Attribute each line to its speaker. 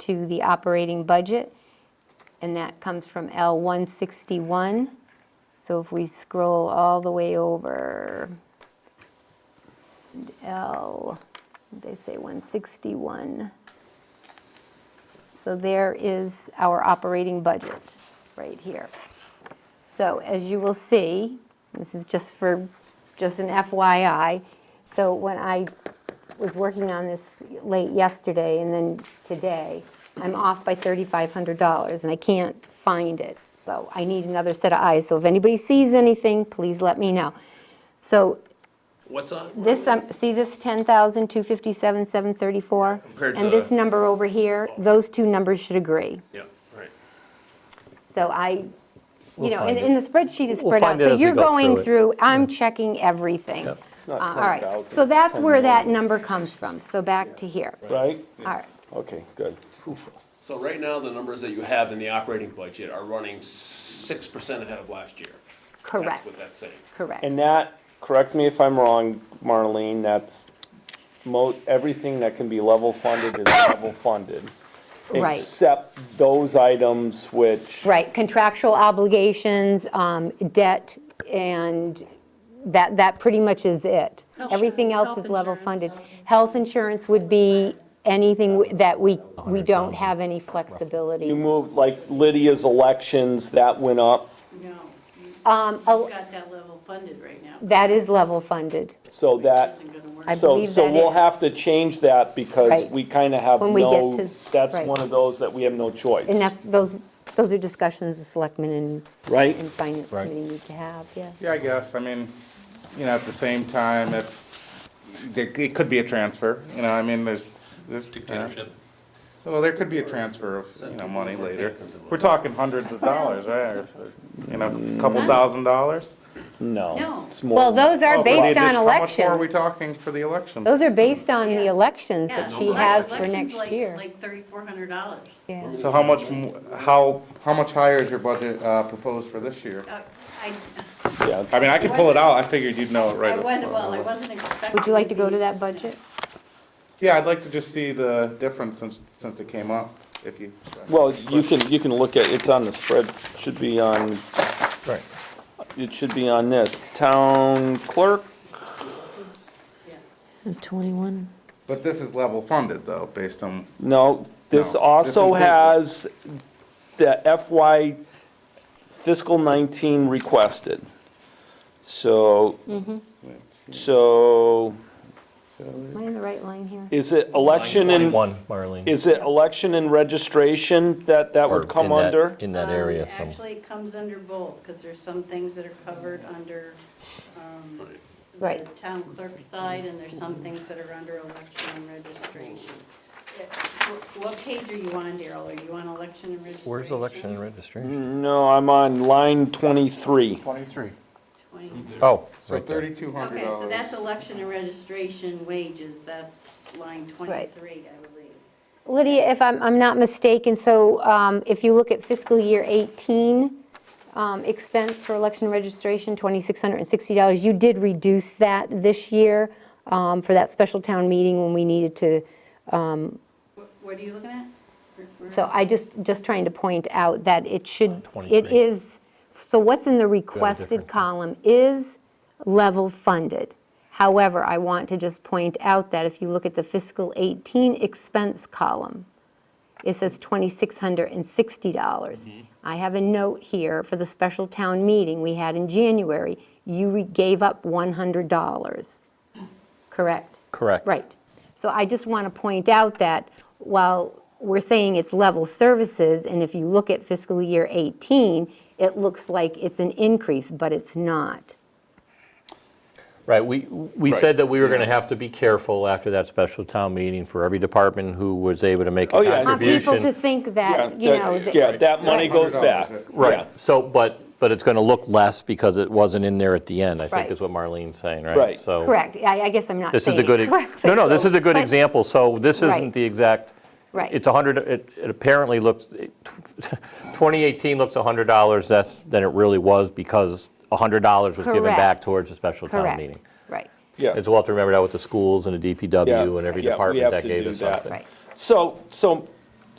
Speaker 1: to the operating budget, and that comes from L161. So if we scroll all the way over, L, they say 161. So there is our operating budget, right here. So as you will see, this is just for, just an FYI, so when I was working on this late yesterday and then today, I'm off by $3,500 and I can't find it. So I need another set of eyes, so if anybody sees anything, please let me know. So
Speaker 2: What's on?
Speaker 1: this, um, see this 10,257, 734?
Speaker 2: Compared
Speaker 1: And
Speaker 2: to-
Speaker 1: this number over here, those two numbers should agree.
Speaker 2: Yeah, right.
Speaker 1: So I, you
Speaker 3: We'll
Speaker 1: know,
Speaker 3: find
Speaker 1: and
Speaker 3: it.
Speaker 1: and the spreadsheet is
Speaker 3: We'll
Speaker 1: spread out,
Speaker 3: find it
Speaker 1: so
Speaker 3: as we
Speaker 1: you're
Speaker 3: go
Speaker 1: going
Speaker 3: through it.
Speaker 1: through, I'm checking everything. Uh,
Speaker 4: It's
Speaker 1: All
Speaker 4: not
Speaker 1: right,
Speaker 4: 10,000,
Speaker 1: so that's where that
Speaker 4: 10,000.
Speaker 1: number comes from, so back to here. All
Speaker 4: Right?
Speaker 1: right,
Speaker 4: Okay, good.
Speaker 2: So right now, the numbers that you have in the operating budget are running six percent ahead of last year. That's
Speaker 1: correct,
Speaker 2: what that's saying.
Speaker 1: correct.
Speaker 4: And that, correct me if I'm wrong, Marlene, that's mo, everything that can be level funded is level funded.
Speaker 1: Right.
Speaker 4: Except those items which.
Speaker 1: Right, contractual obligations, um, debt, and that, that pretty much is it. Everything else is level funded. Health insurance would be anything w- that we, we don't have any flexibility.
Speaker 4: You moved, like Lydia's elections, that went up,
Speaker 5: No,
Speaker 1: Um, oh,
Speaker 5: you've got that level funded right now.
Speaker 1: That is level funded.
Speaker 4: so that,
Speaker 5: Isn't gonna work.
Speaker 1: I
Speaker 4: so,
Speaker 1: believe
Speaker 4: so
Speaker 1: that
Speaker 4: we'll
Speaker 1: is.
Speaker 4: have to change that because
Speaker 1: Right.
Speaker 4: we kind of have
Speaker 1: When we get
Speaker 4: no,
Speaker 1: to-
Speaker 4: that's
Speaker 1: right.
Speaker 4: one of those that we have no choice.
Speaker 1: And that's, those, those are discussions the selectmen and,
Speaker 4: Right?
Speaker 1: and finance
Speaker 3: Right.
Speaker 1: committee need to have, yeah.
Speaker 6: Yeah, I guess, I mean, you know, at the same time, if, there- it could be a transfer, you know, I mean, there's, there's. uh,
Speaker 2: Dictatorship.
Speaker 6: Well, there could be a transfer of, you know, money later. We're talking hundreds of dollars, right? Or, You know, a couple thousand dollars?
Speaker 4: No,
Speaker 5: No.
Speaker 4: it's more.
Speaker 1: Well, those are
Speaker 6: Oh, but
Speaker 1: based
Speaker 6: the addition-
Speaker 1: on
Speaker 6: How much more are we
Speaker 1: elections.
Speaker 6: talking for the elections?
Speaker 1: Those are based on the
Speaker 5: Yeah.
Speaker 1: elections
Speaker 5: Yeah,
Speaker 1: that she
Speaker 5: elec-
Speaker 1: has for
Speaker 5: election's
Speaker 1: next
Speaker 5: like-
Speaker 1: year.
Speaker 5: Like thirty-four hundred dollars.
Speaker 1: Yeah.
Speaker 6: So how much, m- how, how much higher is your budget uh, proposed for this year?
Speaker 5: I, Uh, I
Speaker 4: Yeah, it's-
Speaker 6: I mean, I could pull it out, I figured you'd know it right.
Speaker 5: I wasn't,
Speaker 6: off.
Speaker 5: well, I wasn't expecting.
Speaker 1: Would you like to go to
Speaker 5: these.
Speaker 1: that budget?
Speaker 6: Yeah, I'd like to just see the difference since, since it came up, if you.
Speaker 4: Well, you can, you can look at, it's on the spread, should be on,
Speaker 3: Right.
Speaker 4: it should be on this, town clerk,
Speaker 5: Yeah.
Speaker 1: 21.
Speaker 6: But this is level funded though, based on
Speaker 4: no, this
Speaker 6: No, this
Speaker 4: also
Speaker 6: includes
Speaker 4: has
Speaker 6: it.
Speaker 4: the FY fiscal nineteen requested. So,
Speaker 6: Mm-hmm.
Speaker 4: so,
Speaker 1: Am I in the right line here?
Speaker 4: is it election and,
Speaker 3: One, Marlene.
Speaker 4: is it election and registration that, that
Speaker 3: Or
Speaker 4: would come
Speaker 3: in that-
Speaker 4: under?
Speaker 3: In that
Speaker 5: Um,
Speaker 3: area, some,
Speaker 5: Actually, it comes under both, because there's some things that are covered under um,
Speaker 1: Right.
Speaker 5: the town clerk side, and there's some things that are under election and registration. It- wh- What page are you on, Daryl? Are you on election and registration?
Speaker 3: where's election and registration?
Speaker 4: No, I'm on line twenty-three.
Speaker 6: twenty-three.
Speaker 5: 20.
Speaker 3: Oh,
Speaker 6: So
Speaker 3: right there.
Speaker 6: thirty-two hundred
Speaker 5: Okay,
Speaker 6: dollars.
Speaker 5: so that's election and registration wages, that's line 23, I believe.
Speaker 1: Lydia, if I'm, I'm not mistaken, so um, if you look at fiscal year 18, um, expense for election registration, $2,660, you did reduce that this year um, for that special town meeting when we needed to,
Speaker 5: Wh- What are you looking at? Where- where-
Speaker 1: so I just, just trying to point out that it should, it
Speaker 3: 23.
Speaker 1: is, so what's in the requested
Speaker 3: different.
Speaker 1: column is level funded. However, I want to just point out that if you look at the fiscal 18 expense column, it says $2,660. I have a note here for the special town meeting we had in January. You re- gave up $100, correct?
Speaker 3: Correct.
Speaker 1: Right. So I just want to point out that while we're saying it's level services, and if you look at fiscal year 18, it looks like it's an increase, but it's not.
Speaker 3: Right, we, we said that we were going to have to be careful after that special town meeting for every department who was able to make
Speaker 4: Oh,
Speaker 3: a
Speaker 4: yeah.
Speaker 1: I want people to
Speaker 3: contribution.
Speaker 1: think
Speaker 4: Yeah,
Speaker 1: that, you
Speaker 4: that-
Speaker 1: know, that-
Speaker 4: Yeah, that money goes
Speaker 6: $100,
Speaker 4: back. Yeah.
Speaker 3: Right, so, but, but it's going to look less because it wasn't in there at the end, I
Speaker 1: Right.
Speaker 3: think is what Marlene's saying, right?
Speaker 4: Right.
Speaker 3: So-
Speaker 1: correct, I I guess I'm not
Speaker 3: This is
Speaker 1: saying
Speaker 3: a
Speaker 1: it
Speaker 3: good, e-
Speaker 1: correctly.
Speaker 3: no, no, this is a good
Speaker 1: But-
Speaker 3: example, so this
Speaker 1: Right.
Speaker 3: isn't the exact,
Speaker 1: Right.
Speaker 3: it's 100, it it apparently looks, it- 2018 looks $100 less than it really was because $100 was given back
Speaker 1: Correct.
Speaker 3: towards the special town
Speaker 1: Correct,
Speaker 3: meeting.
Speaker 1: right,
Speaker 4: Yeah.
Speaker 3: It's well to remember that with the schools and the
Speaker 4: Yeah,
Speaker 3: DPW and every
Speaker 4: yeah, we
Speaker 3: department
Speaker 4: have
Speaker 3: that
Speaker 4: to
Speaker 3: gave
Speaker 4: do
Speaker 3: us
Speaker 4: that.
Speaker 3: something.
Speaker 1: right.
Speaker 4: So, so